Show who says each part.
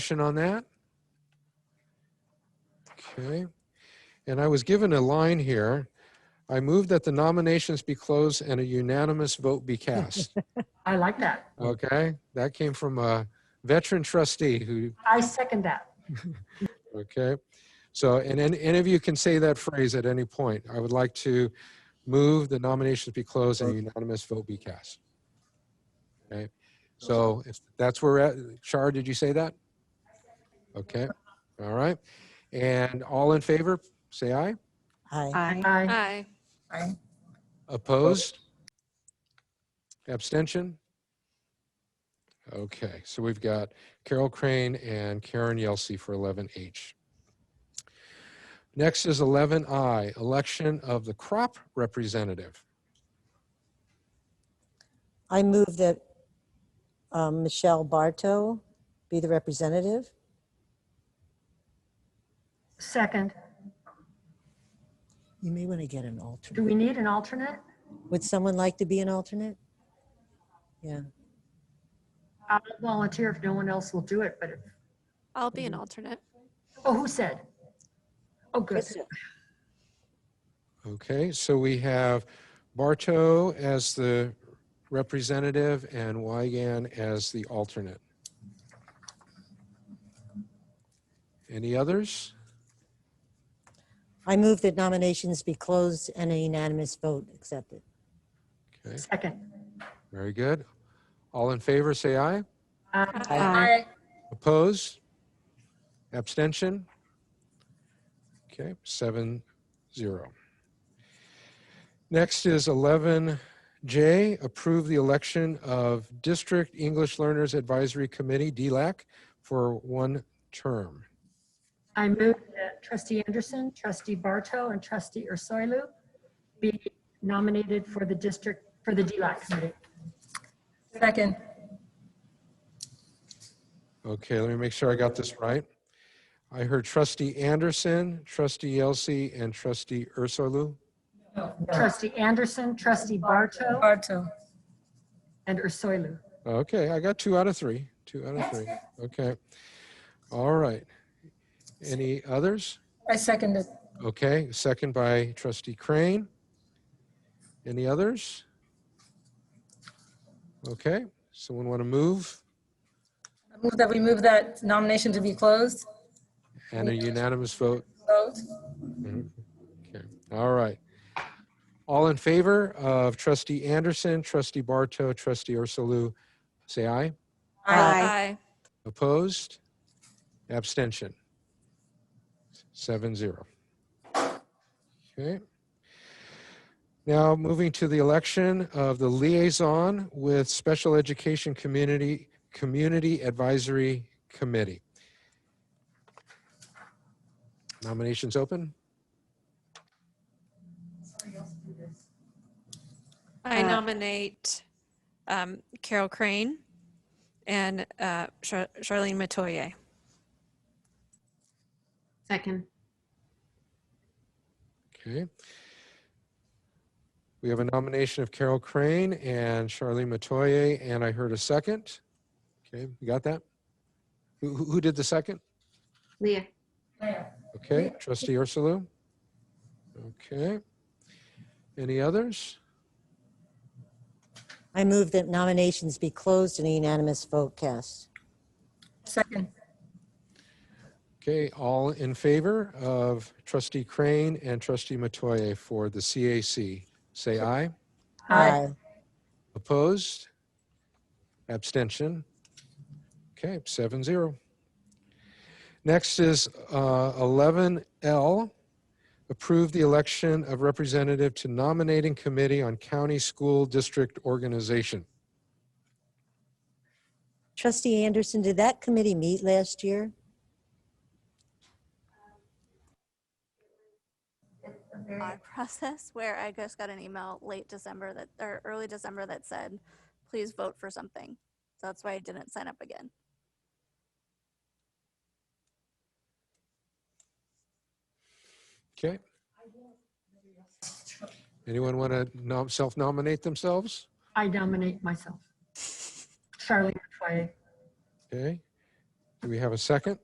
Speaker 1: Discussion on that? Okay. And I was given a line here. I move that the nominations be closed and a unanimous vote be cast.
Speaker 2: I like that.
Speaker 1: Okay? That came from a veteran trustee who,
Speaker 2: I second that.
Speaker 1: okay? So, and any, any of you can say that phrase at any point. I would like to move the nominations be closed and a unanimous vote be cast. Okay? So if that's where, we're at, Shar, did you say that? Okay, all right. And all in favor, say aye.
Speaker 3: Aye.
Speaker 4: Aye.
Speaker 2: I,
Speaker 4: Aye.
Speaker 1: Opposed? Abstention? Okay, so we've got Carol Crane and Karen Yelsey for 11H. Next is 11I, election of the crop representative.
Speaker 3: I move that um, Michelle Bartow be the representative.
Speaker 2: second.
Speaker 3: You may want to get an
Speaker 2: Do
Speaker 3: alternate.
Speaker 2: we need an alternate?
Speaker 3: Would someone like to be an alternate? Yeah,
Speaker 2: I'll volunteer if no one else will do it, but, if
Speaker 4: I'll be an alternate.
Speaker 2: oh, who said? Oh, good.
Speaker 3: Krista.
Speaker 1: Okay, so we have Bartow as the representative and Wygan as the alternate. Any others?
Speaker 3: I move that nominations be closed and a unanimous vote accepted.
Speaker 1: Okay,
Speaker 2: Second.
Speaker 1: very good. All in favor, say aye.
Speaker 2: Aye.
Speaker 4: Aye.
Speaker 1: Opposed? Abstention? Okay, seven, zero. Next is 11J, approve the election of District English Learners Advisory Committee, DLAC, for one term.
Speaker 2: I move that trustee Anderson, trustee Barto, and trustee Ursulou be nominated for the district, for the DLAC committee.
Speaker 5: Second.
Speaker 1: Okay, let me make sure I got this right. I heard trustee Anderson, trustee Yelsey, and trustee Ursulou.
Speaker 2: Trustee Anderson, trustee Barto,
Speaker 5: Barto.
Speaker 2: and Ursulou.
Speaker 1: Okay, I got two out of three, two out of three. Okay. All right. Any others?
Speaker 5: I second it.
Speaker 1: Okay, second by trustee Crane. Any others? Okay, someone want to move
Speaker 5: I move that we move that nomination to be closed.
Speaker 1: and a unanimous vote?
Speaker 5: Vote.
Speaker 1: Okay, all right. All in favor of trustee Anderson, trustee Barto, trustee Ursulou, say aye.
Speaker 4: Aye.
Speaker 5: Aye.
Speaker 1: Opposed? Abstention? Seven zero. Okay. Now, moving to the election of the liaison with Special Education Community, Community Advisory Committee. Nominations open?
Speaker 4: I nominate um, Carol Crane and uh, Char- Charlene Matoye.
Speaker 2: Second.
Speaker 1: Okay. We have a nomination of Carol Crane and Charlene Matoye, and I heard a second. Okay, you got that? Who, who who did the second?
Speaker 2: Leah.
Speaker 1: Okay, trustee Ursulou? Okay. Any others?
Speaker 3: I move that nominations be closed and a unanimous vote cast.
Speaker 5: Second.
Speaker 1: Okay, all in favor of trustee Crane and trustee Matoye for the CAC, say aye.
Speaker 2: Aye.
Speaker 1: Opposed? Abstention? Okay, seven zero. Next is uh, 11L, approve the election of representative to nominating committee on county school district organization.
Speaker 3: Trustee Anderson, did that committee meet last year?
Speaker 6: our process where I just got an email late December that, or early December that said, please vote for something. So that's why I didn't sign up again.
Speaker 1: Okay? Anyone want to self-nominate themselves?
Speaker 2: I nominate myself. Charlene Metoyer.
Speaker 1: Okay? Do we have a second?